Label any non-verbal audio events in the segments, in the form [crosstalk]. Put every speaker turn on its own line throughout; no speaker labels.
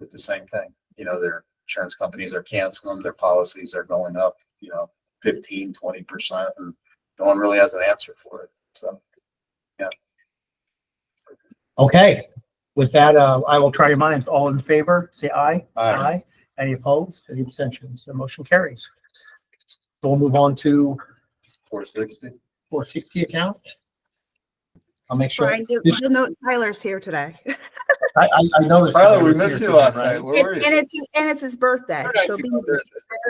with the same thing. You know, their insurance companies are canceling, their policies are going up, you know, 15, 20 percent, and no one really has an answer for it. So
Okay, with that, uh, I will try your minds. All in favor, say aye.
I
Any opposed, any abstentions? The motion carries. We'll move on to
four sixty.
four sixty account. I'll make sure, I,
Brian, you,
Yes.
you know Tyler's here today. And
I, I noticed.
Tyler,
that
we
it was
missed
here
you last
today,
night.
right?
Where were
and
you?
it's, and it's his birthday.
Very nice
so
to
be-
go there.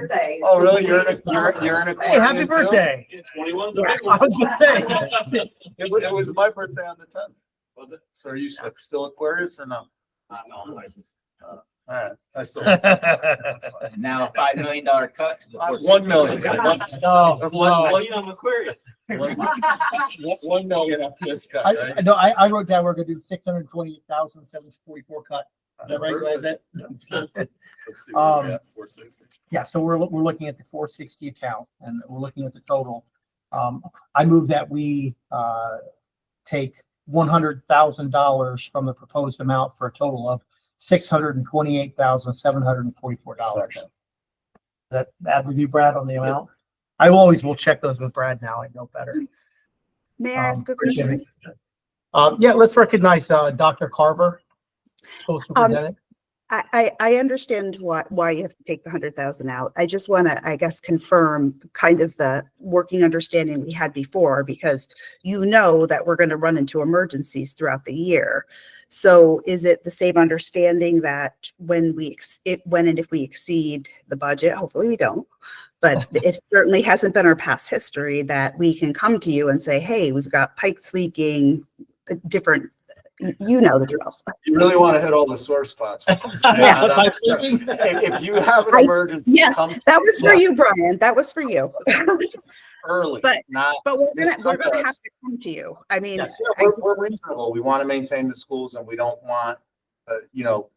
birthday.
Oh, really? You're in a, you're, you're in a.
Hey, happy
quarantine too?
birthday. [laughs]
Twenty-one's a
I
big one.
was gonna say, [laughs]
It wa- it was my birthday on the tenth.
Was it?
So are you s- still Aquarius or no?
Uh, no, I'm
[laughs]
licensed.
All right, I
[laughs]
still.
And now a five million dollar cut to the.
Uh,
460.
One million. One-
No,
Well,
Oh, no.
you know, I'm Aquarius.
one- One million after this cut,
I,
right?
I- no, I, I wrote down, we're gonna do six hundred twenty thousand seven forty-four cut. Is that right? Glad that-
Let's see where we're
Um,
at, 460.
Yeah, so we're, we're looking at the four sixty account and we're looking at the total. Um, I move that we, uh, take one hundred thousand dollars from the proposed amount for a total of six hundred and twenty-eight thousand, seven hundred and forty-four dollars.
Second.
That, that with you, Brad, on the amount? I always will check those with Brad now. I know better.
May
Um,
I ask a
appreciate
question?
it. Um, yeah, let's recognize, uh, Dr. Carver, school superintendent.
I, I, I understand why, why you have to take the hundred thousand out. I just want to, I guess, confirm kind of the working understanding we had before, because you know that we're going to run into emergencies throughout the year. So is it the same understanding that when we, ex- if, when and if we exceed the budget, hopefully we don't, but it certainly hasn't been our past history that we can come to you and say, hey, we've got pipes leaking, uh, different, you- you know the drill.
You really want to hit all the sore [laughs] spots.
Yes.
Am I
If,
speaking?
if you have an
I-
emergency,
yes.
come
That was for
Yeah.
you, Brian. That was for you.
early,
But-
not,
[laughs] But we're
Yes,
gonna, we're gonna
sometimes.
have to come to you. I mean,
Yes.
Yeah, we're, we're reasonable. We want to maintain the schools and we don't want, uh, you know,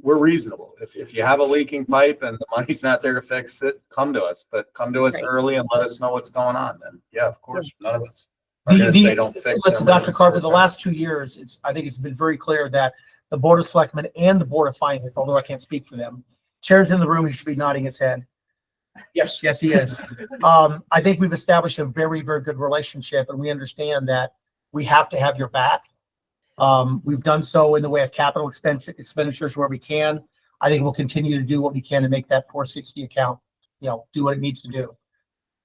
we're reasonable. If, if you have a leaking pipe and the money's not there to fix it, come to us, but come to us
Right.
early and let us know what's going on. And yeah, of course, none of us are
The-
going to
the-
say don't fix.
Listen,
it.
Dr. Carver, the last two years, it's, I think it's been very clear that the Board of Selectmen and the Board of Finance, although I can't speak for them, chairs in the room, he should be nodding his head.
Yes.
Yes, he is. Um, I think we've established a very, very good relationship and we understand that we have to have your back. Um, we've done so in the way of capital expenditure, expenditures where we can. I think we'll continue to do what we can to make that four sixty account, you know, do what it needs to do.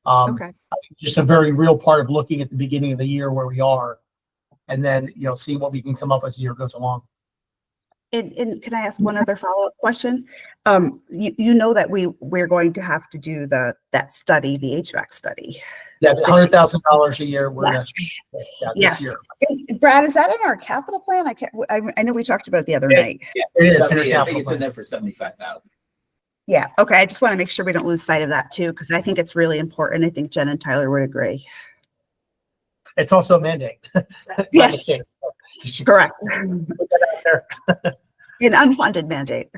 Um,
okay,
just a very real part of looking at the beginning of the year where we are. And then, you know, see what we can come up as the year goes along.
and, and can I ask one other follow-up question? Um, you, you know that we, we're going to have to do the, that study, the HVAC study.
Yeah, hundred thousand dollars a year. we're gonna-
Yes.
yeah, this
Yes.
year.
Is- Brad, is that in our capital plan? I can't, I, I know we talked about it the other
Yeah.
night.
It is. in our
Yeah, I think
capital
it's in
plan.
there for seventy-five
[laughs]
thousand.
Yeah, okay, I just want to make sure we don't lose sight of that too, because I think it's really important. I think Jen and Tyler would agree.
It's also a mandate. [laughs]
Yes, correct.
there.
An unfunded mandate.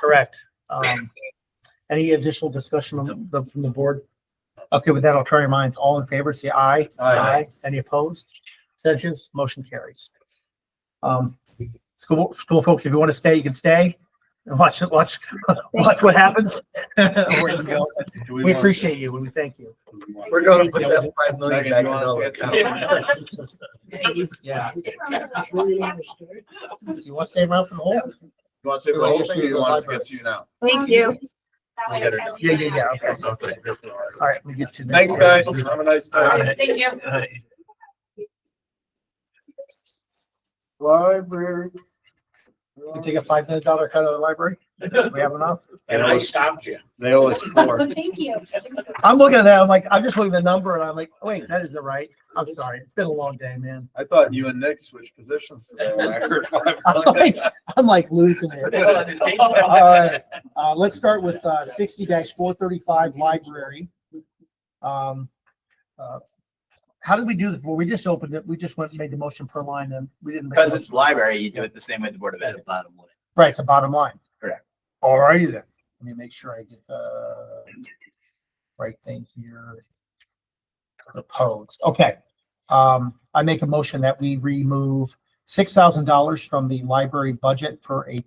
Correct. Um, any additional discussion on the, from the board? Okay, with that, I'll try your minds. All in favor, say aye.
Aye.
Any opposed? Abstentions? Motion carries. Um, school, school folks, if you want to stay, you can stay and watch, watch, [laughs] watch what happens. [laughs] Where you go.
Do
We
want-
appreciate you and we thank you.
do we want-
We're gonna put that five million back
Megan, you
in
wanna
our
say
account.
it?
Yeah. You want to stay around for the whole?
You want to say the whole thing or you want us to get to you now?
Thank you.
We'll get her done.
Yeah, yeah, yeah. Okay. All right, let me get to. the-
Thanks, guys. Have a nice
All
day.
right.
Thank you.
Library.
We take a five million dollar cut out of the library? We have enough?
And I
[laughs]
stopped you.
[laughs] They always four.
Thank you.
I'm looking at that, I'm like, I'm just looking at the number and I'm like, wait, that isn't right. I'm sorry. It's been a long day, man. [laughs]
I thought you and Nick switched positions today when I heard five.
I'm like, I'm like losing it. All right, uh, let's start with, uh, sixty four thirty-five library. Um, uh, how did we do this? Well, we just opened it. We just went and made the motion per line and we didn't. make a
[laughs] Because it's
motion.
library, you do it the same way the Board of Ed. Bottom line.
Right, it's a bottom line.
Correct.
All righty then. Let me make sure I get the right thing here. Proposed, okay. Um, I make a motion that we remove six thousand dollars from the library budget for a